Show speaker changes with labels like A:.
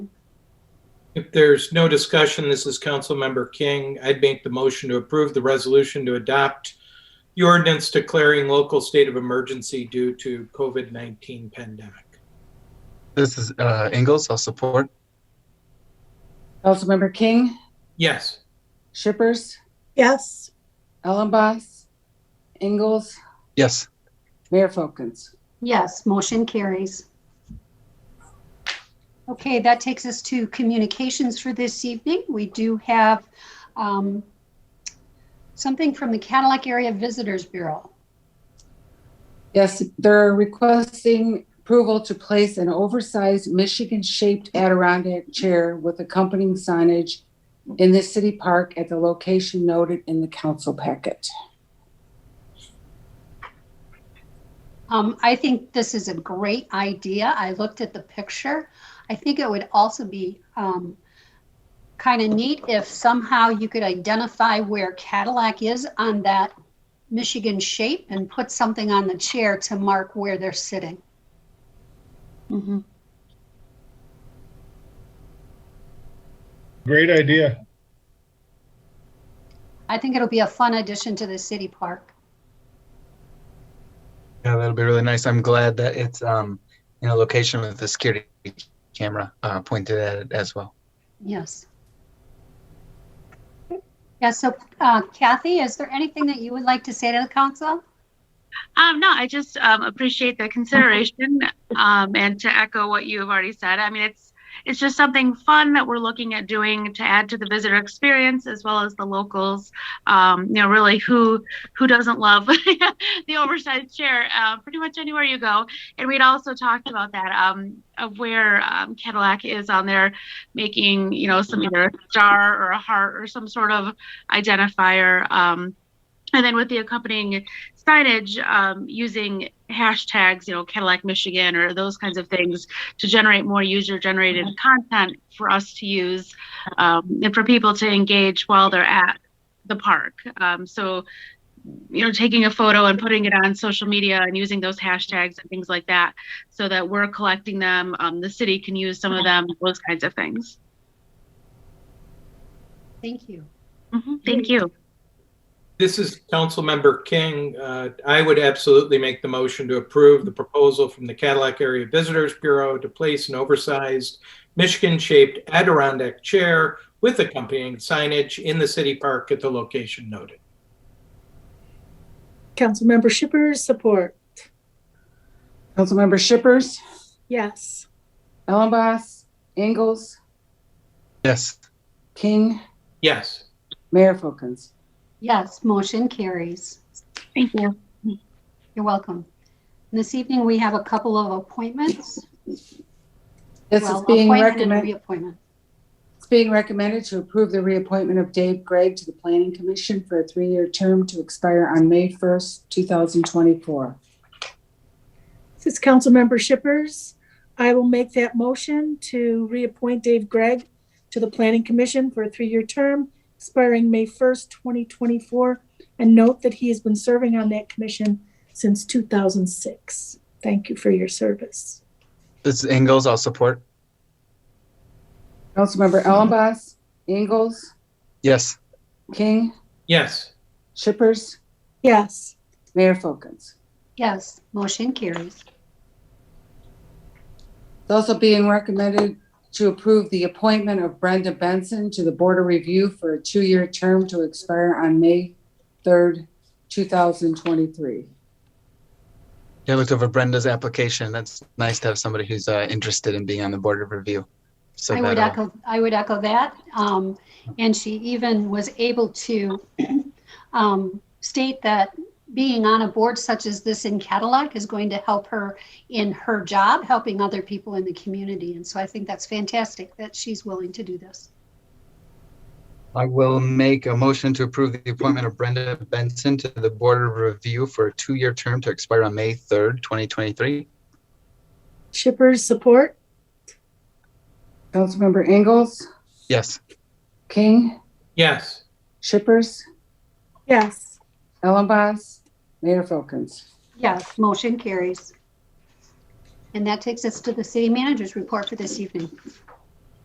A: If there's no discussion, this is Councilmember King. I'd make the motion to approve the resolution to adopt the ordinance declaring local state of emergency due to COVID-19 pandemic.
B: This is uh, Ingalls. I'll support.
C: Councilmember King,
A: Yes.
C: Shippers,
D: yes,
C: Ellenboss, Ingalls,
B: Yes.
C: Mayor Folkins.
E: Yes, motion carries. Okay, that takes us to communications for this evening. We do have um, something from the Cadillac Area Visitors Bureau.
C: Yes, they're requesting approval to place an oversized Michigan-shaped Adirondack chair with accompanying signage in the city park at the location noted in the council packet.
E: Um, I think this is a great idea. I looked at the picture. I think it would also be um, kind of neat if somehow you could identify where Cadillac is on that Michigan shape and put something on the chair to mark where they're sitting.
F: Great idea.
E: I think it'll be a fun addition to the city park.
B: Yeah, that'll be really nice. I'm glad that it's um, in a location with the security camera uh, pointed at it as well.
E: Yes. Yeah, so uh, Kathy, is there anything that you would like to say to the council?
G: Um, no, I just um, appreciate the consideration um, and to echo what you have already said. I mean, it's it's just something fun that we're looking at doing to add to the visitor experience as well as the locals. Um, you know, really, who who doesn't love the oversized chair? Uh, pretty much anywhere you go. And we'd also talked about that um, of where um, Cadillac is on there, making you know some either a star or a heart or some sort of identifier. Um, and then with the accompanying signage um, using hashtags, you know, Cadillac Michigan or those kinds of things to generate more user generated content for us to use um, and for people to engage while they're at the park. Um, so, you know, taking a photo and putting it on social media and using those hashtags and things like that so that we're collecting them, um, the city can use some of them, those kinds of things.
E: Thank you.
G: Mhm, Thank you.
A: This is Councilmember King. Uh, I would absolutely make the motion to approve the proposal from the Cadillac Area Visitors Bureau to place an oversized Michigan-shaped Adirondack chair with accompanying signage in the city park at the location noted.
D: Councilmember Shippers, support,
C: Councilmember Shippers,
D: yes,
C: Ellenboss, Ingalls,
B: Yes.
C: King,
A: Yes.
C: Mayor Folkins.
E: Yes, motion carries.
G: Thank you.
E: You're welcome. And This evening, we have a couple of appointments.
C: This is
E: Well,
C: being
E: appointment and
C: recommended.
E: Reappointment.
C: It's being recommended to approve the reappointment of Dave Gregg to the Planning Commission for a three-year term to expire on May 1st, 2024.
D: this is Councilmember Shippers. I will make that motion to reappoint Dave Gregg to the Planning Commission for a three-year term expiring May first, twenty twenty-four. And note that he has been serving on that commission since two thousand six. Thank you for your service.
B: This is Ingalls. I'll support.
C: Councilmember Ellenboss, Ingalls,
B: Yes.
C: King,
A: Yes.
C: Shippers,
D: Yes,
C: Mayor Folkins.
E: Yes, motion carries.
C: It's also being recommended to approve the appointment of Brenda Benson to the Board of Review for a two-year term to expire on May 3rd, 2023.
B: Yeah, I looked over Brenda's application. That's nice to have somebody who's uh, interested in being on the board of review. So
E: I would
B: that'll-
E: echo, I would echo that. Um, and she even was able to, um, state that being on a board such as this in Cadillac is going to help her in her job, helping other people in the community. And so I think that's fantastic that she's willing to do this.
B: uh, I will make a motion to approve the appointment of Brenda Benson to the Board of Review for a two-year term to expire on May 3rd, 2023.
D: Shippers, support,
C: Councilmember Ingalls,
B: Yes.
C: King,
A: Yes.
C: Shippers,
D: yes.
C: Ellenboss, Mayor Folkins.
E: Yes, motion carries. And that takes us to the city manager's report for this evening.